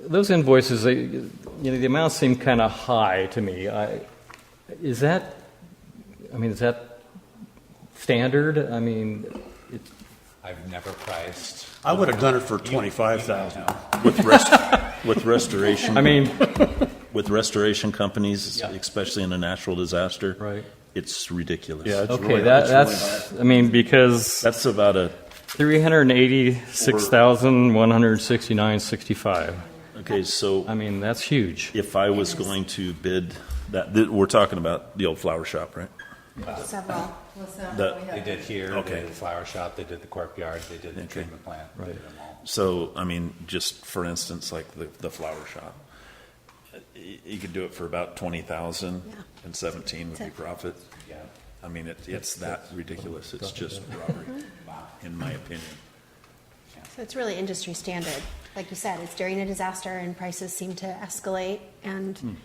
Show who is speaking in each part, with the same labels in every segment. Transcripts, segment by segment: Speaker 1: Those invoices, they, you know, the amounts seem kind of high to me. I, is that, I mean, is that standard? I mean, it,
Speaker 2: I've never priced.
Speaker 3: I would have done it for twenty-five thousand.
Speaker 4: With rest, with restoration.
Speaker 1: I mean,
Speaker 4: With restoration companies,
Speaker 1: Yeah.
Speaker 4: especially in a natural disaster.
Speaker 1: Right.
Speaker 4: It's ridiculous.
Speaker 3: Yeah, it's
Speaker 1: okay,
Speaker 3: really-
Speaker 1: that,
Speaker 3: it's
Speaker 1: that's, I mean, because
Speaker 4: That's about a,
Speaker 1: three hundred eighty-six thousand one hundred sixty-nine sixty-five.
Speaker 4: okay, so
Speaker 1: I mean, that's huge.
Speaker 4: if I was going to bid that, th- we're talking about the old flower shop, right?
Speaker 5: Several, well, several.
Speaker 4: That-
Speaker 5: we
Speaker 2: They
Speaker 5: have.
Speaker 2: did here, they
Speaker 4: Okay.
Speaker 2: did the flower shop, they did the courtyard, they did the
Speaker 4: Okay.
Speaker 2: treatment plant. they did
Speaker 1: Right.
Speaker 2: them all.
Speaker 4: So, I mean, just for instance, like the, the flower shop, Uh, y- you could do it for about twenty thousand and seventeen would be profit.
Speaker 2: Yeah.
Speaker 4: I mean, it, it's that ridiculous. It's just robbery,
Speaker 1: Mm-hmm.
Speaker 4: in my opinion.
Speaker 5: So it's really industry standard. Like you said, it's during a disaster and prices seem to escalate. And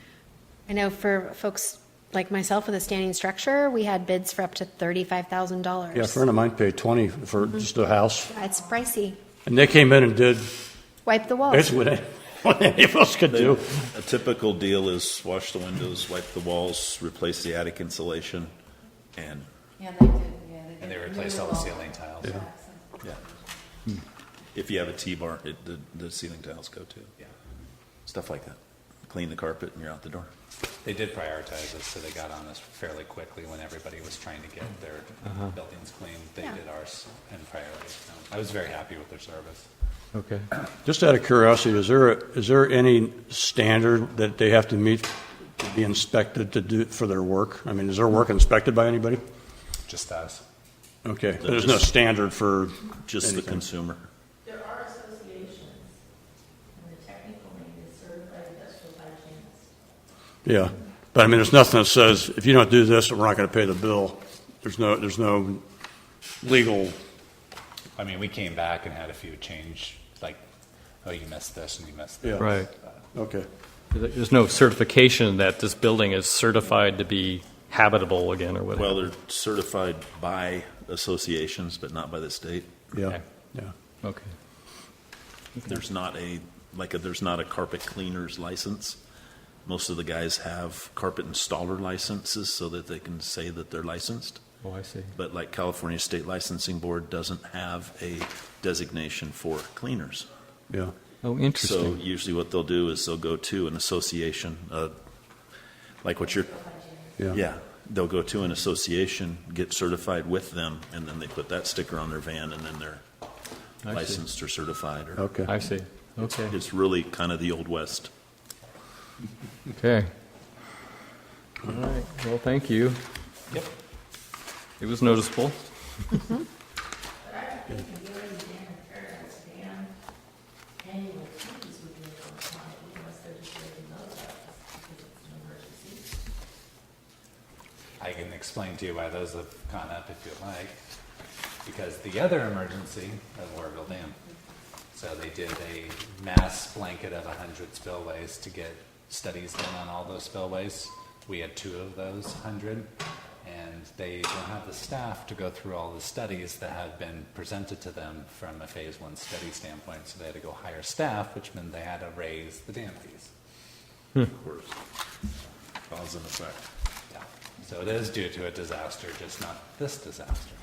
Speaker 5: I know for folks like myself with a standing structure, we had bids for up to $35,000.
Speaker 3: Yeah, a friend of mine paid twenty for just a house,
Speaker 5: It's pricey.
Speaker 3: and they came in and did
Speaker 5: Wipe the walls.
Speaker 3: basically what any- what any of us could do.
Speaker 4: A typical deal is wash the windows, wipe the walls, replace the attic insulation, and,
Speaker 6: Yeah, they did, yeah, they did.
Speaker 2: And they replaced all the ceiling tiles.
Speaker 4: yeah. If you have a T-bar, it, the, the ceiling tiles go too.
Speaker 2: Yeah.
Speaker 4: Stuff like that. Clean the carpet and you're out the door.
Speaker 2: They did prioritize us, so they got on us fairly quickly when everybody was trying to get their
Speaker 4: Uh-huh.
Speaker 2: buildings cleaned. They
Speaker 5: Yeah.
Speaker 2: did ours in priority. so I was very happy with their service.
Speaker 1: Okay.
Speaker 3: Just out of curiosity, is there, is there any standard that they have to meet to be inspected to do, for their work? I mean, is their work inspected by anybody?
Speaker 2: Just us.
Speaker 3: Okay, but there's no standard for
Speaker 4: Just the
Speaker 3: anything.
Speaker 4: consumer.
Speaker 6: There are associations, and the technical name is certified industrial hygienist.
Speaker 3: Yeah, but I mean, there's nothing that says, if you don't do this, we're not going to pay the bill. There's no, there's no legal,
Speaker 2: I mean, we came back and had a few change, like, oh, you missed this and you missed
Speaker 3: yeah.
Speaker 2: that.
Speaker 1: Right.
Speaker 3: Okay.
Speaker 1: There's no certification that this building is certified to be habitable again or whatever.
Speaker 4: Well, they're certified by associations, but not by the state.
Speaker 3: Yeah,
Speaker 1: Okay.
Speaker 3: yeah.
Speaker 1: Okay.
Speaker 4: There's not a, like, a- there's not a carpet cleaner's license. Most of the guys have carpet installer licenses so that they can say that they're licensed.
Speaker 1: Oh, I see.
Speaker 4: But like California State Licensing Board doesn't have a designation for cleaners.
Speaker 3: Yeah.
Speaker 1: Oh,
Speaker 4: So
Speaker 1: interesting.
Speaker 4: usually what they'll do is they'll go to an association, uh, like what you're, yeah, they'll go to an association, get certified with them, and then they put that sticker on their van, and then they're
Speaker 1: I see.
Speaker 4: licensed or certified. or-
Speaker 3: Okay.
Speaker 1: I see. Okay.
Speaker 4: It's really kind of the old west.
Speaker 1: Okay. All right. Well, thank you.
Speaker 2: Yep.
Speaker 1: It was noticeable.
Speaker 6: But I don't think you really Dan and Paradise Dan annual fees would be able to apply unless they're just raising those up because it's an emergency.
Speaker 2: I can explain to you why those have gone up if you'd like. Because the other emergency was Warville Dam. So they did a mass blanket of 100 spillways to get studies done on all those spillways. We had two of those 100, and they don't have the staff to go through all the studies that had been presented to them from a phase one study standpoint. So they had to go hire staff, which meant they had to raise the dam fees.
Speaker 4: Of course. Cause and effect.
Speaker 2: Yeah. So it is due to a disaster, just not this disaster.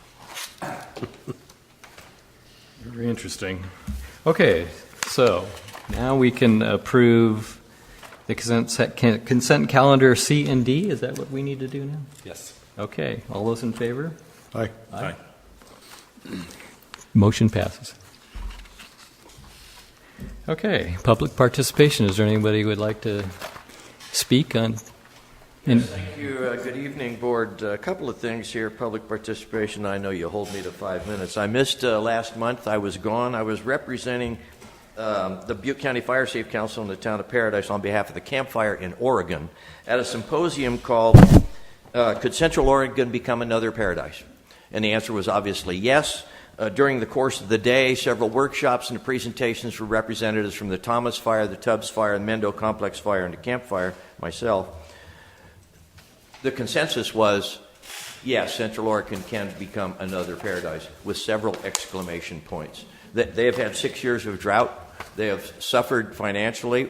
Speaker 1: Very interesting. Okay. So now we can approve the consent, consent calendar C and D. Is that what we need to do now?
Speaker 2: Yes.
Speaker 1: Okay. All those in favor?
Speaker 3: Hi.
Speaker 4: Aye.
Speaker 1: Motion passes. Okay, public participation. Is there anybody who would like to speak on? And
Speaker 7: Thank you. Uh, Good evening, Board. A couple of things here, public participation. I know you hold me to five minutes. I missed uh, last month. I was gone. I was representing um, the Butte County Fire Safe Council in the town of Paradise on behalf of the campfire in Oregon at a symposium called uh, Could Central Oregon Become Another Paradise? And the answer was obviously yes. Uh, during the course of the day, several workshops and presentations from representatives from the Thomas Fire, the Tubbs Fire, the Mendo Complex Fire, and the Camp Fire, myself the consensus was, yes, Central Oregon can become another paradise, with several exclamation points. They, they have had six years of drought. They have suffered financially